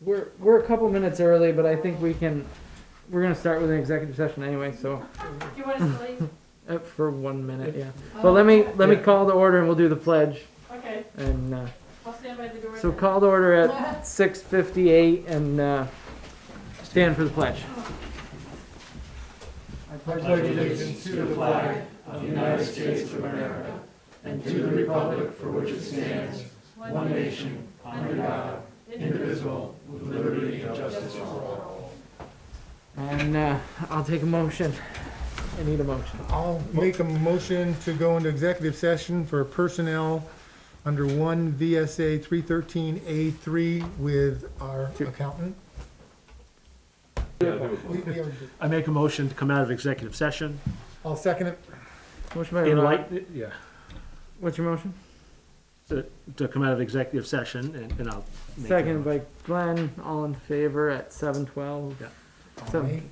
We're, we're a couple minutes early, but I think we can, we're gonna start with an executive session anyway, so, Do you want us to leave? uh, for one minute, yeah. But let me, let me Yeah. call to order and we'll do the pledge, Okay, and, uh, I'll stand by the door. so then. call to order at six fifty-eight and, uh, stand for the pledge. One nation, under God, indivisible, with liberty and justice for all. And, uh, I'll take a motion. I need a motion. I'll make a motion to go into executive session for personnel under one VSA three thirteen A three with our accountant. We- we already did. I make a motion to come out of executive session. I'll second it. Motion by In Rod. light, yeah, What's your motion? to come out of executive session and, and I'll. make that Second motion. by Glenn, all in favor at seven twelve. So- Aye.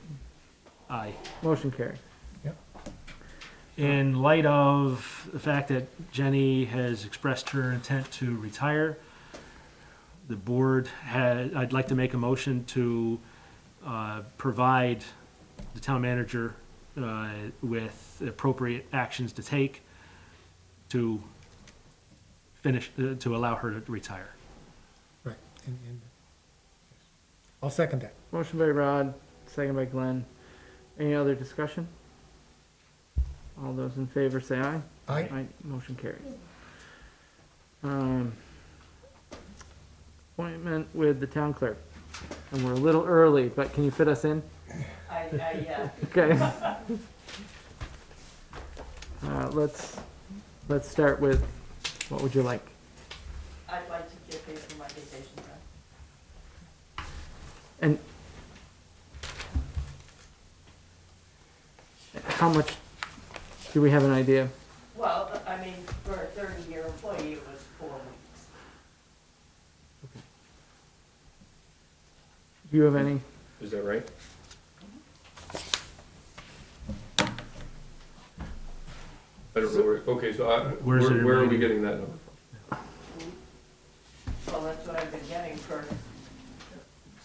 Aye. Motion carried. In light of the fact that Jenny has expressed her intent to retire, the board had, I'd like to make a motion to, uh, provide the town manager, uh, with appropriate actions to take to finish, uh, to allow her to retire. Right. and- and- I'll second that. Motion by Rod, second by Glenn. Any other discussion? All those in favor say aye. Aye. Aye, motion carries. Um, appointment with the town clerk. And we're a little early, but can you fit us in? I, I, yeah. Okay. Uh, let's, let's start with, what would you like? I'd like to get paid for my vacation time. And how much do we have an idea? Well, I mean, for a thirty-year employee, it was four weeks. Do you have any? Is that right? I don't know where, okay, so I, where, Where's it in where are we writing? getting that number? Well, that's what I've been getting for,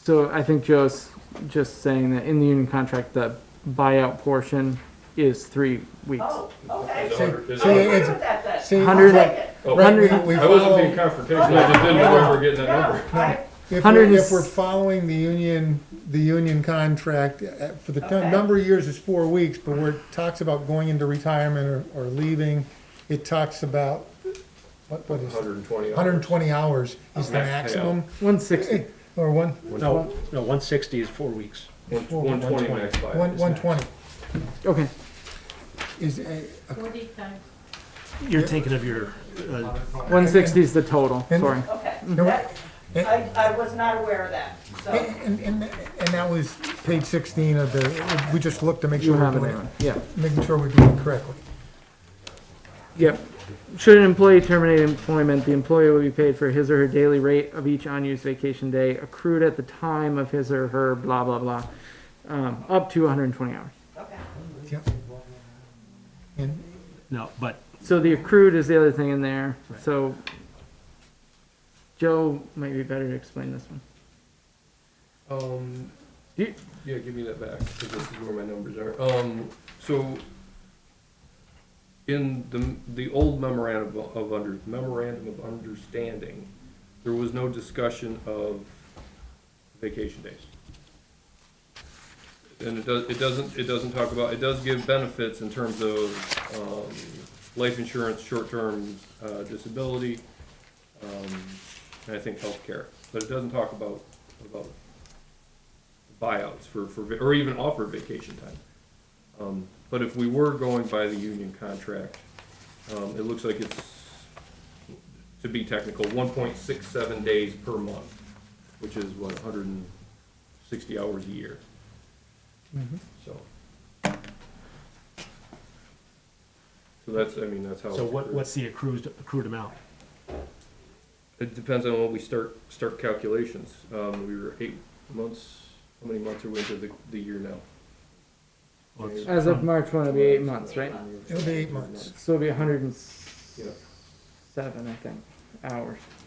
So I think Joe's just saying that in the union contract, the buyout portion is three weeks. oh, okay. Is So- that what it is? so I'll it- agree it's- with that then. See, Hundred- I'll take it. Oh, right, we- hundred- we I wasn't being follow- confrontational, I just didn't know where we're getting that number. No, I- If Hundred we're, and if s- we're following the union, the union contract, uh, for the Okay. t- number of years is four weeks, but where it talks about going into retirement or, or leaving, it talks about, what, what is it? Hundred and twenty. Hundred and twenty hours is the Max payout. maximum, One sixty. or one, No, no, one sixty is four weeks. One twenty max buyout. one, one twenty Okay. is uh, a, a- Forty times. You're thinking of your, uh, One sixty is the total. And- Sorry. Okay, No, Eh, that, it- I, I was not aware of that, so, and, and, and that was page sixteen of the, we just looked to make You sure we're have it. doing Aaron. it, Yeah. making sure we're doing it correctly. Yep. Should an employee terminate employment, the employee will be paid for his or her daily rate of each unused vacation day accrued at the time of his or her blah, blah, blah, um, up to one hundred and twenty hours. okay. Yep. And, no, but So the accrued is the other thing in there, Right. so Joe might be better to explain this one. Um, You- yeah, give me that back, because this is where my numbers are. Um, so, in the, the old memorandum of under, memorandum of understanding, there was no discussion of vacation days. And it does, it doesn't, it doesn't talk about, it does give benefits in terms of, um, life insurance, short-term, uh, disability, um, and I think healthcare, but it doesn't talk about, about buyouts for, for, va- or even offer vacation time. Um, but if we were going by the union contract, um, it looks like it's, to be technical, one point six seven days per month, which is what, hundred and sixty hours a year, so. So that's, I mean, that's how. So it's what, accrued. what's the accrued, accrued amount? It depends on when we start, start calculations. Um, we were eight months, how many months are we into the, the year now? Well, it's As of from- March one, it'll be eight months, right? It'll be eight months. So it'll be hundred and Yeah. seven, I think, hours.